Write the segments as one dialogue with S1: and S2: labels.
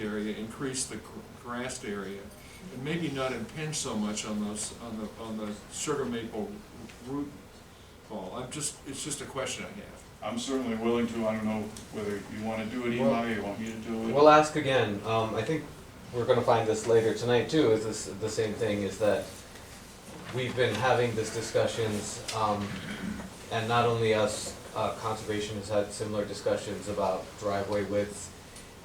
S1: area, increase the gr- grassed area, and maybe not impinge so much on those, on the, on the sugar maple root ball. I'm just, it's just a question I have.
S2: I'm certainly willing to, I don't know whether you wanna do it, Eli, or you want me to do it.
S3: We'll ask again, um, I think we're gonna find this later tonight too, is this, the same thing, is that we've been having these discussions, um, and not only us, uh, conservation has had similar discussions about driveway widths.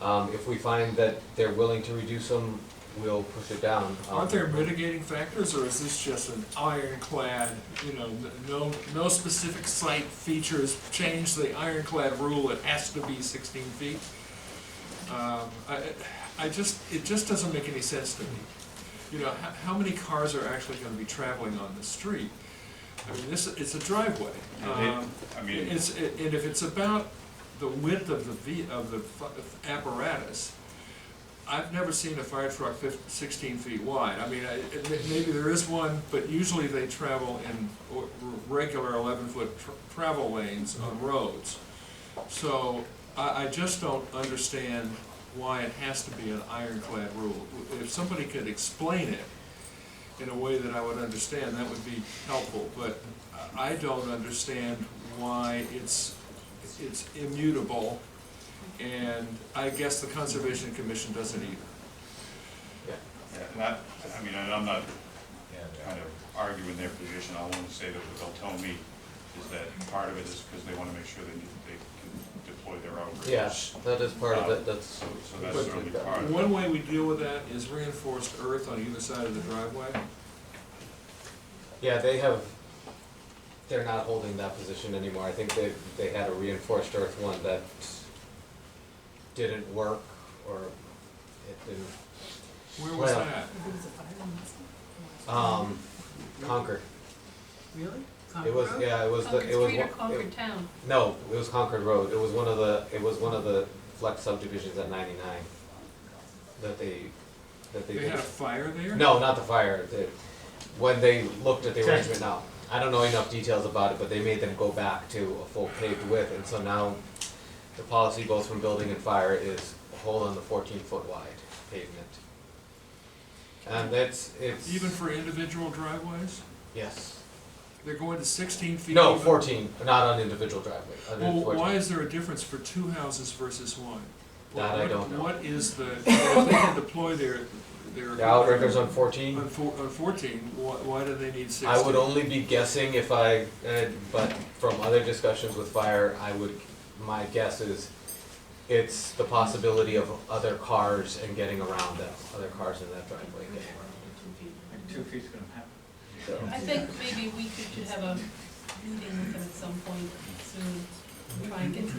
S3: Um, if we find that they're willing to reduce them, we'll push it down. Um,
S1: Aren't there mitigating factors, or is this just an ironclad, you know, n- no, no specific site features, change the ironclad rule, it has to be sixteen feet? Um, I, I just, it just doesn't make any sense to me. You know, how, how many cars are actually gonna be traveling on the street? I mean, this, it's a driveway.
S2: And
S1: Um,
S2: it- I mean,
S1: It's, and if it's about the width of the ve, of the fu- apparatus, I've never seen a fire truck fif- sixteen feet wide. I mean, I, it- may- maybe there is one, but usually they travel in or- r- regular eleven-foot travel lanes on roads. So I, I just don't understand why it has to be an ironclad rule. If somebody could explain it, in a way that I would understand, that would be helpful, but I don't understand why it's, it's immutable, and I guess the Conservation Commission doesn't either.
S3: Yeah.
S2: and I, I mean, and I'm not kind of arguing their position, I wanna say that what they'll tell me is that part of it is because they wanna make sure they, they can deploy their outriggers.
S3: Yeah, that is part of it, that's.
S2: So, so that's certainly part of it.
S1: One way we deal with that is reinforced earth on either side of the driveway.
S3: Yeah, they have, they're not holding that position anymore. I think they, they had a reinforced earth one that didn't work or it didn't,
S1: Where was
S3: Well-
S1: that?
S3: um, Concord.
S4: Really?
S3: It was, yeah, it was, the
S5: Concord
S3: it was.
S5: Street or
S3: one- it-
S5: Oh, Concord Town?
S3: No, it was Concord Road. It was one of the, it was one of the flex subdivisions at ninety-nine that they, that they
S1: They
S3: did.
S1: had a fire there?
S3: No, not the fire. The, when they looked at the arrangement now, I don't know enough details about it, but they made them go back to a full paved width, and so now the policy both from building and fire is hold on the fourteen foot wide pavement. And that's, it's.
S1: Even for individual driveways?
S3: Yes.
S1: They're going to sixteen feet?
S3: No,
S1: even?
S3: fourteen, not on individual driveway, on
S1: Well,
S3: fourteen.
S1: why is there a difference for two houses versus one?
S3: That I
S1: What-
S3: don't know.
S1: What is the, if they can deploy their, their.
S3: The outriggers on fourteen?
S1: On four, on fourteen, why, why do they need sixteen?
S3: I would only be guessing if I, uh, but from other discussions with fire, I would, my guess is it's the possibility of other cars and getting around them, other cars in that driveway getting around.
S6: Two feet's gonna happen.
S5: I think maybe we could should have a meeting with them at some point soon, try and get to.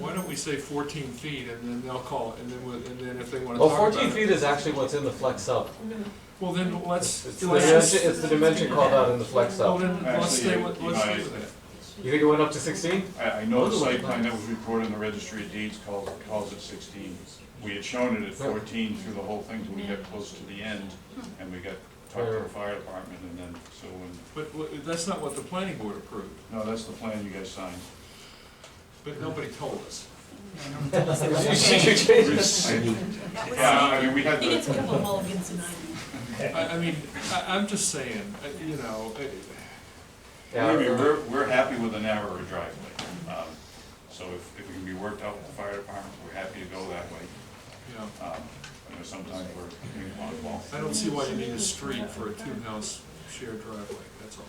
S1: Why don't we say fourteen feet and then they'll call, and then, we'll- and then if they wanna
S3: Well,
S1: talk about it.
S3: fourteen feet is actually what's in the flex sub.
S1: Well, then
S3: It's
S1: let's,
S3: the
S1: let's
S3: dimension,
S1: just,
S3: it's the dimension called out in the flex
S1: well,
S3: sub.
S1: then, let's stay with,
S2: Actually,
S1: let's stay
S2: you
S1: with that.
S3: You think it went up to sixteen?
S2: I, I know the site plan that was reported in the registry of deeds calls, calls it sixteen. We had shown it at fourteen through the whole thing till we got close to the end,
S5: Hmm.
S2: and we got, talked to the fire department, and then, so when,
S1: But, w- that's not what the planning board approved,
S2: no, that's the plan you guys signed.
S1: but nobody told us.
S3: You changed it.
S2: Yeah, I mean, we had
S5: He gets a
S2: the,
S5: couple of mulligans tonight.
S1: I, I mean, I, I'm just saying, uh, you know, uh,
S3: Yeah,
S2: I mean, we're, we're happy with a narrower driveway. Um, So if, if it can be worked out with the fire department, we're happy to go that way.
S1: you know.
S2: Um, You know, sometimes we're ping pong ball.
S1: I don't see why you need a street for a two-house shared driveway, that's all.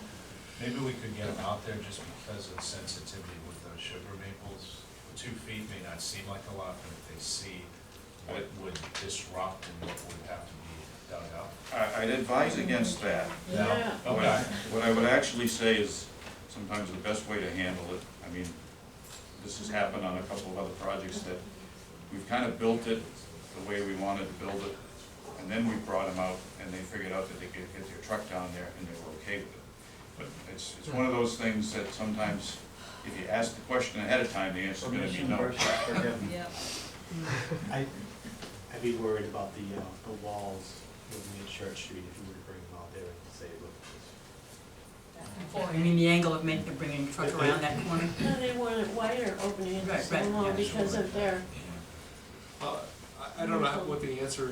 S7: Maybe we could get them out there just because of sensitivity with those sugar maples. Two feet may not seem like a lot, but if they see what would disrupt and what would have to be dug up.
S2: I, I'd advise against that.
S7: Yeah.
S2: What I, what I would actually say is sometimes the best way to handle it, I mean, this has happened on a couple of other projects that we've kind of built it the way we wanted to build it, and then we brought them out and they figured out that they could get their truck down there and they were okay with it. But it's, it's one of those things that sometimes if you ask the question ahead of time, the answer's gonna be
S6: Permission
S2: no.
S6: versus forgiveness.
S5: Yeah.
S8: I, I'd be worried about the, uh, the walls moving at Church Street if you were to bring them out there and say, look, this-
S4: I mean, the angle of making, bringing the truck around that corner.
S9: No, they want it wider opening,
S4: Right,
S9: it's
S4: right,
S9: so long
S7: yeah,
S9: because
S7: sure.
S9: of their,
S1: Uh, I don't know what the answer